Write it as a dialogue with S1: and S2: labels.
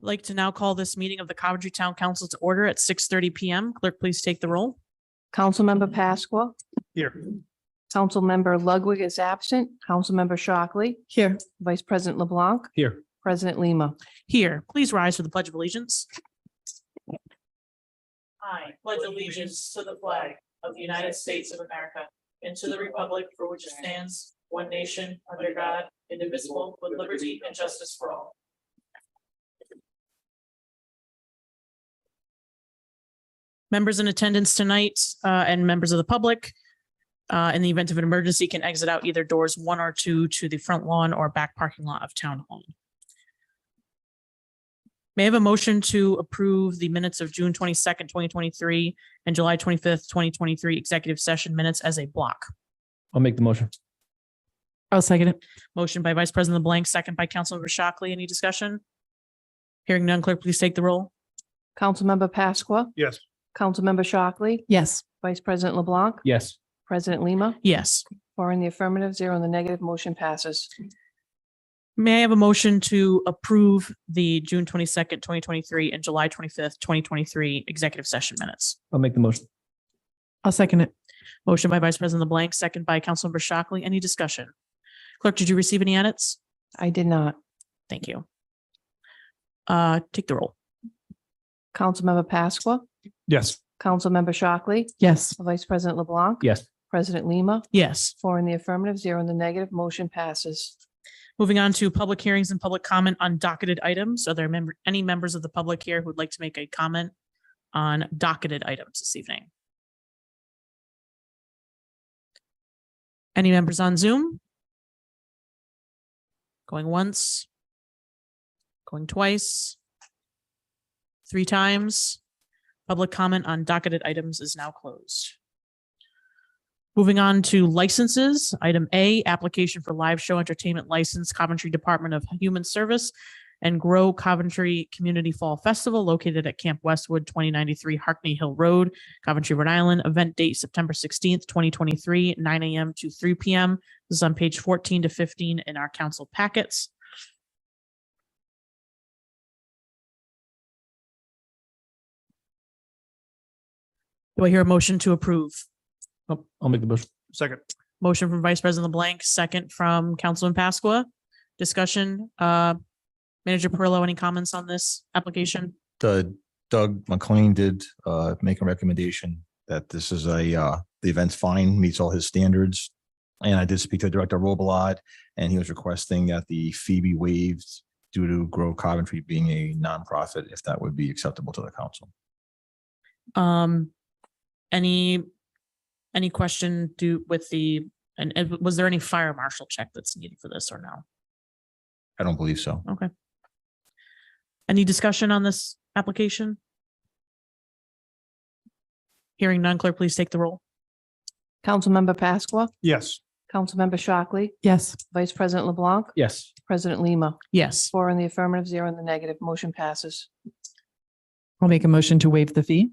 S1: like to now call this meeting of the Coventry Town Council to order at six thirty PM. Clerk, please take the roll.
S2: Councilmember Pasqua,
S3: Here.
S2: Councilmember Ludwig is absent, Councilmember Shockley,
S1: Here.
S2: Vice President LeBlanc,
S3: Here.
S2: President Lima.
S1: Here, please rise for the Pledge of Allegiance. I pledge allegiance to the flag of the United States of America and to the republic for which it stands, one nation, under God, indivisible, with liberty and justice for all. Members in attendance tonight uh, and members of the public, uh, in the event of an emergency, can exit out either doors one or two to the front lawn or back parking lot of Town Hall. May I have a motion to approve the minutes of June twenty-second, twenty twenty-three and July twenty-fifth, twenty twenty-three executive session minutes as a block?
S3: I'll make the motion.
S1: I'll second it. Motion by Vice President LeBlanc, second by Councilmember Shockley. Any discussion? Hearing none, clerk, please take the roll.
S2: Councilmember Pasqua,
S3: Yes.
S2: Councilmember Shockley,
S1: Yes.
S2: Vice President LeBlanc,
S3: Yes.
S2: President Lima,
S1: Yes.
S2: four in the affirmative, zero in the negative, motion passes.
S1: May I have a motion to approve the June twenty-second, twenty twenty-three and July twenty-fifth, twenty twenty-three executive session minutes?
S3: I'll make the motion.
S1: I'll second it. Motion by Vice President LeBlanc, second by Councilmember Shockley. Any discussion? Clerk, did you receive any edits?
S2: I did not.
S1: Thank you. Uh, take the roll.
S2: Councilmember Pasqua,
S3: Yes.
S2: Councilmember Shockley,
S1: Yes.
S2: Vice President LeBlanc,
S3: Yes.
S2: President Lima,
S1: Yes.
S2: four in the affirmative, zero in the negative, motion passes.
S1: Moving on to public hearings and public comment on docketed items. Are there member, any members of the public here who would like to make a comment on docketed items this evening? Any members on Zoom? Going once? Going twice? Three times? Public comment on docketed items is now closed. Moving on to licenses, item A, application for live show entertainment license Coventry Department of Human Service and Grow Coventry Community Fall Festival located at Camp Westwood, 2093 Harkney Hill Road, Coventry, Rhode Island. Event date September 16th, 2023, 9 a.m. to 3 p.m. This is on page 14 to 15 in our council packets. Do I hear a motion to approve?
S3: I'll Oh, I'll make the motion. Second.
S1: Motion from Vice President LeBlanc, second from Councilman Pasqua. Discussion, uh, Manager Perillo, any comments on this application?
S4: the Doug McLean did uh make a recommendation that this is a uh, the event's fine, meets all his standards. And I did speak to Director Robelot, and he was requesting that the fee be waived due to Grow Coventry being a nonprofit, if that would be acceptable to the council.
S1: Um, any, any question do with the, and, and was there any fire marshal check that's needed for this or no?
S4: I don't believe so.
S1: Any discussion on this application? Hearing none, clerk, please take the roll.
S2: Councilmember Pasqua,
S3: Yes.
S2: Councilmember Shockley,
S1: Yes.
S2: Vice President LeBlanc,
S3: Yes.
S2: President Lima,
S1: Yes.
S2: four in the affirmative, zero in the negative, motion passes.
S5: I'll make a motion to waive the fee.